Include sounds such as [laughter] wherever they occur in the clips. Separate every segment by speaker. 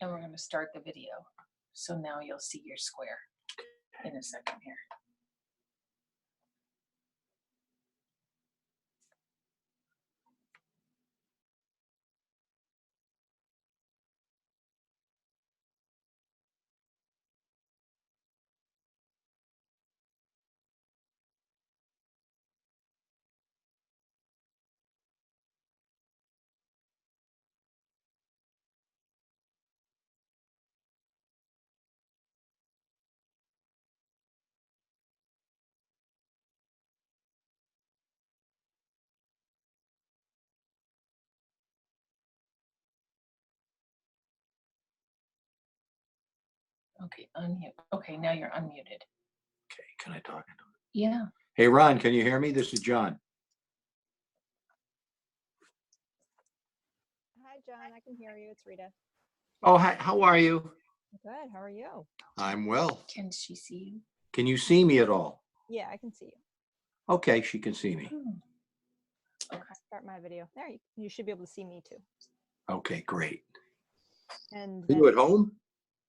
Speaker 1: and we're gonna start the video. So now you'll see your square in a second here. Okay, unmute. Okay, now you're unmuted.
Speaker 2: Okay, can I talk? into it?
Speaker 1: Yeah.
Speaker 2: Hey, Ron, can you hear me? This is John.
Speaker 3: Hi, John. I can hear you. It's Rita.
Speaker 2: Oh, hi, how are you?
Speaker 3: Good. How are you?
Speaker 2: I'm well.
Speaker 1: Can she see
Speaker 2: Can you see me at all?
Speaker 3: Yeah, I can see you.
Speaker 2: Okay, she can see me.
Speaker 1: you? Hmm,
Speaker 3: Start my video. There you, you should be able to see me too.
Speaker 2: Okay, great.
Speaker 3: And
Speaker 2: Are you
Speaker 3: then-
Speaker 2: at home?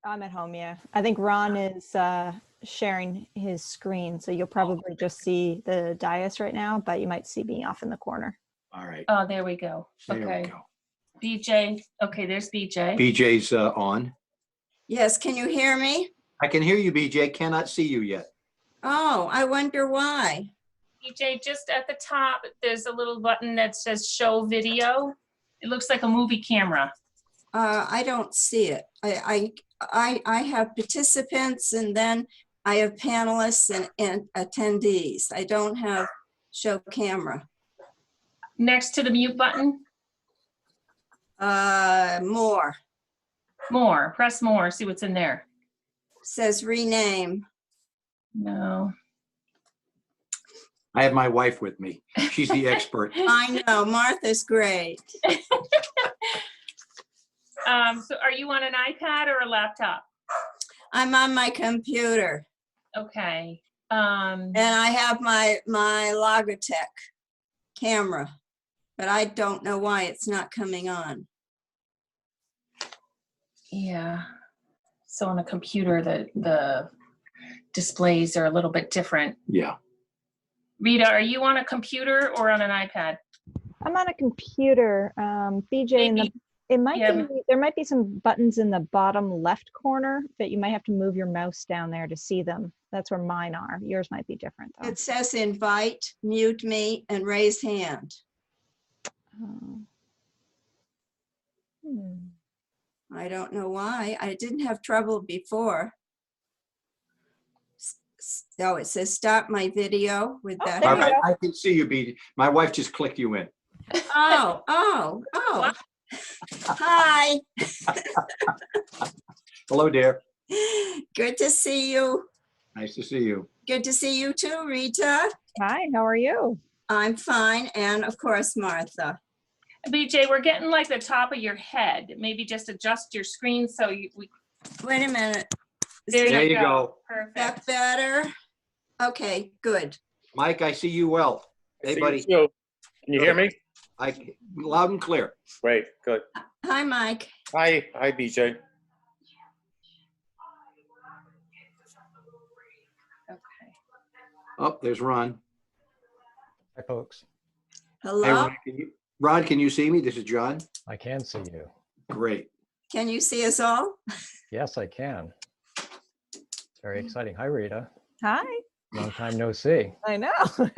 Speaker 3: I'm at home. Yeah. I think Ron is uh, sharing his screen. So you'll probably just see the dais right now, but you might see me off in the corner.
Speaker 2: All right,
Speaker 1: Oh, there we go.
Speaker 2: there we
Speaker 1: Okay,
Speaker 2: go.
Speaker 1: BJ, okay, there's BJ.
Speaker 2: BJ's uh, on.
Speaker 4: Yes, can you hear me?
Speaker 2: I can hear you, BJ. Cannot see you yet.
Speaker 4: Oh, I wonder why.
Speaker 1: BJ, just at the top, there's a little button that says show video. It looks like a movie camera.
Speaker 4: Uh, I don't see it. I, I, I, I have participants and then I have panelists and, and attendees. I don't have show camera.
Speaker 1: Next to the mute button,
Speaker 4: Uh, more,
Speaker 1: more, press more, see what's in there.
Speaker 4: says rename.
Speaker 1: No,
Speaker 2: I have my wife with me. She's [laughs] the expert.
Speaker 4: I know, Martha's great.
Speaker 1: um, so are you on an iPad or a laptop?
Speaker 4: I'm on my computer
Speaker 1: Okay, um,
Speaker 4: and I have my, my Logitech camera. But I don't know why it's not coming on.
Speaker 1: yeah. So on a computer, the, the displays are a little bit different.
Speaker 2: Yeah.
Speaker 1: Rita, are you on a computer or on an iPad?
Speaker 3: I'm on a computer. Um, BJ, in the,
Speaker 1: Maybe-
Speaker 3: it might
Speaker 1: yeah,
Speaker 3: be, there might be some buttons in the bottom left corner, but you might have to move your mouse down there to see them. That's where mine are. Yours might be different though.
Speaker 4: It says invite, mute me, and raise hand.
Speaker 3: Oh. Hmm.
Speaker 4: I don't know why. I didn't have trouble before. S- s- Oh, it says stop my video with
Speaker 1: Oh,
Speaker 4: that.
Speaker 1: there
Speaker 2: All
Speaker 1: you
Speaker 2: right, I can see you, BJ. My wife just clicked you in.
Speaker 4: Oh, oh, oh. Hi,
Speaker 2: Hello, dear.
Speaker 4: good to see you.
Speaker 2: Nice to see you.
Speaker 4: Good to see you too, Rita.
Speaker 3: Hi, how are you?
Speaker 4: I'm fine, and of course Martha.
Speaker 1: BJ, we're getting like the top of your head. Maybe just adjust your screen so you, we,
Speaker 4: Wait a minute. Is
Speaker 1: There
Speaker 2: There
Speaker 4: that-
Speaker 1: you
Speaker 2: you go.
Speaker 1: perfect.
Speaker 4: that better? Okay, good.
Speaker 2: Mike, I see you well.
Speaker 5: I
Speaker 2: Hey,
Speaker 5: see you
Speaker 2: buddy.
Speaker 5: too. Can you hear me?
Speaker 2: I, loud and clear.
Speaker 5: Great, good.
Speaker 4: Hi, Mike.
Speaker 5: Hi, hi, BJ.
Speaker 1: Okay.
Speaker 2: Oh, there's Ron.
Speaker 6: Hi, folks.
Speaker 2: Hey,
Speaker 4: Hello?
Speaker 2: Ron, can you- Ron, can you see me? This is John.
Speaker 6: I can see you.
Speaker 2: Great.
Speaker 4: Can you see us all?
Speaker 6: Yes, I can. Hmm. It's Very exciting. Hi, Rita.
Speaker 3: Hi.
Speaker 6: Long time no see.
Speaker 3: I know.